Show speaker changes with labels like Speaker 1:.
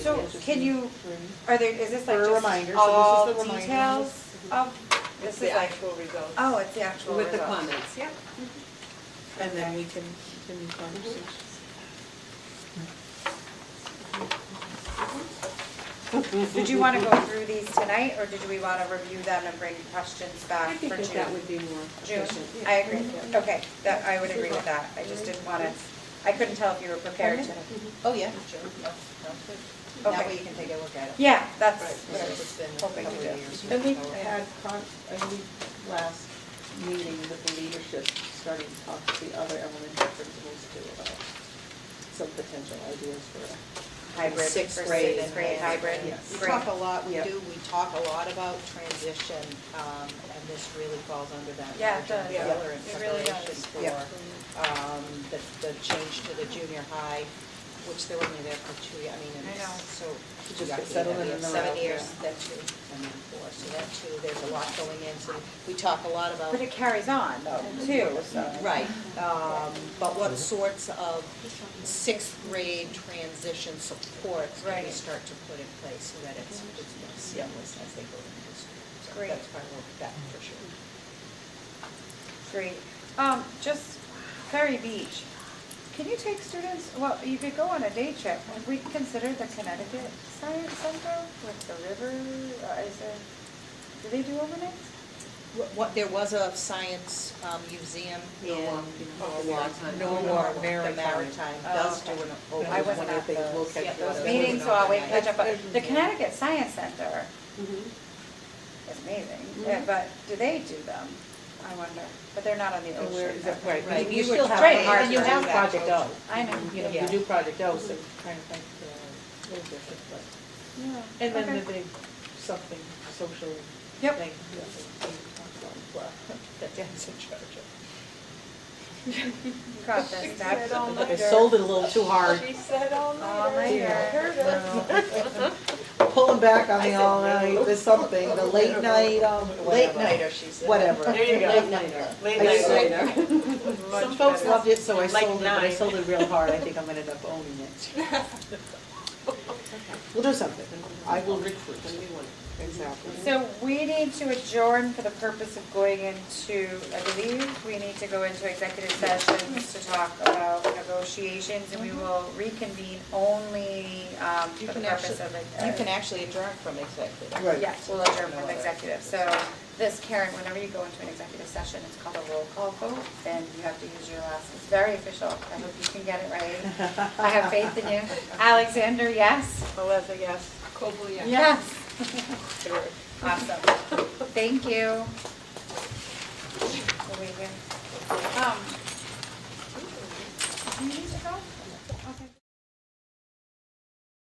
Speaker 1: So can you, are there, is this like
Speaker 2: For a
Speaker 1: just
Speaker 2: reminder, so this is
Speaker 1: all
Speaker 2: the reminder.
Speaker 1: details of,
Speaker 3: It's
Speaker 1: this
Speaker 3: the
Speaker 1: is like,
Speaker 3: actual results.
Speaker 1: oh, it's the actual
Speaker 3: With the
Speaker 1: result.
Speaker 3: comments, yeah.
Speaker 2: And then we can continue conversations.
Speaker 1: Mm-hmm. Did you wanna go through these tonight, or did we wanna review them and bring questions back
Speaker 3: I
Speaker 1: for June?
Speaker 3: think that that would be more
Speaker 1: June,
Speaker 3: efficient.
Speaker 1: I agree, okay, that, I would agree with that, I just didn't wanna, I couldn't tell if you were prepared to.
Speaker 2: Mm-hmm.
Speaker 4: Oh, yeah, sure, yeah, no,
Speaker 1: Okay.
Speaker 4: That way you can take a look at it.
Speaker 1: Yeah,
Speaker 4: Right,
Speaker 1: that's what I was
Speaker 4: because it's been a
Speaker 1: hoping
Speaker 4: couple
Speaker 1: to
Speaker 4: of
Speaker 1: do.
Speaker 4: years.
Speaker 2: And we
Speaker 4: so-
Speaker 2: had, con- and we, last meeting with the leadership, started to talk to the other elementary principals too about some potential ideas for a
Speaker 1: Hybrid
Speaker 4: Sixth
Speaker 1: versus
Speaker 4: grade
Speaker 1: sixth
Speaker 4: and-
Speaker 1: grade hybrid,
Speaker 2: Yes.
Speaker 4: We
Speaker 1: great.
Speaker 4: talk a lot, we
Speaker 2: Yep.
Speaker 4: do, we talk a lot about transition, um, and this really falls under that.
Speaker 1: Yeah, it does.
Speaker 4: We're in
Speaker 1: It really
Speaker 4: preparation
Speaker 1: does.
Speaker 4: for,
Speaker 2: Yep.
Speaker 4: um, the, the change to the junior high, which they were only there for two, years. I mean, and
Speaker 1: I know.
Speaker 4: so.
Speaker 2: To just
Speaker 4: Yeah,
Speaker 2: get settled in
Speaker 4: yeah,
Speaker 2: and then
Speaker 4: Seven
Speaker 2: out, yeah.
Speaker 4: years, that's two, and then four, so that too, there's a lot going in, so we talk a lot about.
Speaker 1: But it carries on though, too, so.
Speaker 4: Right, um, but what sorts of sixth grade transition supports can we
Speaker 1: Right.
Speaker 4: start to put in place so that it's, it's more seamless as they go into school? So
Speaker 1: Great.
Speaker 4: That's why we're back for sure.
Speaker 1: Great. Um, just Ferry Beach, can you take students, well, you could go on a day trip. Have we considered the Connecticut Science Center with the river? Uh, Is there, do they do overnight?
Speaker 4: What- What, there was a science um, museum in.
Speaker 2: Norwalk, you know,
Speaker 4: Norwalk,
Speaker 2: the Maritime.
Speaker 4: Norwalk,
Speaker 2: Norwalk,
Speaker 4: the
Speaker 2: Maritime.
Speaker 4: Maritime
Speaker 1: Oh,
Speaker 4: does do
Speaker 1: okay.
Speaker 4: an
Speaker 2: Oh,
Speaker 4: overnight.
Speaker 1: I wasn't
Speaker 2: one of
Speaker 1: at
Speaker 2: the things, we'll
Speaker 1: those.
Speaker 2: catch
Speaker 4: Yeah,
Speaker 2: you
Speaker 4: those
Speaker 2: up.
Speaker 1: Meetings, so I'll wait,
Speaker 4: overnight.
Speaker 1: catch up. on- The Connecticut Science Center
Speaker 2: Mhm.
Speaker 3: Mm-hmm.
Speaker 1: is amazing, yeah, but do they do them? I wonder, but they're not on the
Speaker 2: And where
Speaker 1: ocean.
Speaker 2: is that, right,
Speaker 4: Right,
Speaker 2: and
Speaker 4: you
Speaker 2: you
Speaker 4: would
Speaker 2: still have,
Speaker 1: try hard
Speaker 2: and you
Speaker 1: to
Speaker 2: have
Speaker 4: do that.
Speaker 2: Project O.
Speaker 1: I know.
Speaker 2: You know,
Speaker 4: Yeah.
Speaker 2: you do Project O, so trying to think, uh, a little different, but.
Speaker 1: Yeah,
Speaker 2: And then
Speaker 1: okay.
Speaker 2: the big something, social thing.
Speaker 1: Yep.
Speaker 2: that we talked about as well, That Dan's in charge of.
Speaker 1: Got this, Deb.
Speaker 3: all
Speaker 2: I sold it a little too hard,
Speaker 3: She said all
Speaker 1: All nighter.
Speaker 2: pulling back on the all night, the something, the late night, um,
Speaker 4: Late nighter, she said.
Speaker 2: whatever.
Speaker 3: There you go.
Speaker 2: Late nighter.
Speaker 3: Late
Speaker 2: I
Speaker 3: night
Speaker 2: sold-
Speaker 3: later.
Speaker 2: Some folks loved it, so I
Speaker 3: Like
Speaker 2: sold it, but I
Speaker 3: nine.
Speaker 2: sold it real hard, I think I'm gonna end up owning it. We'll do something, I will recruit. Exactly.
Speaker 1: So we need to adjourn for the purpose of going into, I believe, we need to go into executive sessions to talk about negotiations, and we will reconvene only um,
Speaker 4: Mm-hmm. You
Speaker 1: for the
Speaker 4: can
Speaker 1: purpose
Speaker 4: actually,
Speaker 1: of. uh,
Speaker 4: you can actually adjourn from executive.
Speaker 2: Right.
Speaker 1: Yes, we'll adjourn from executive, so this, Karen, whenever you go into an executive session, it's called a roll call vote, and you have to use your last, it's very official, I hope you can get it right. I have faith in you. Alexander, yes?
Speaker 3: Melissa, yes. Cobley,
Speaker 1: Yes. Awesome. Thank you. We'll wait here. Um, do you need to go?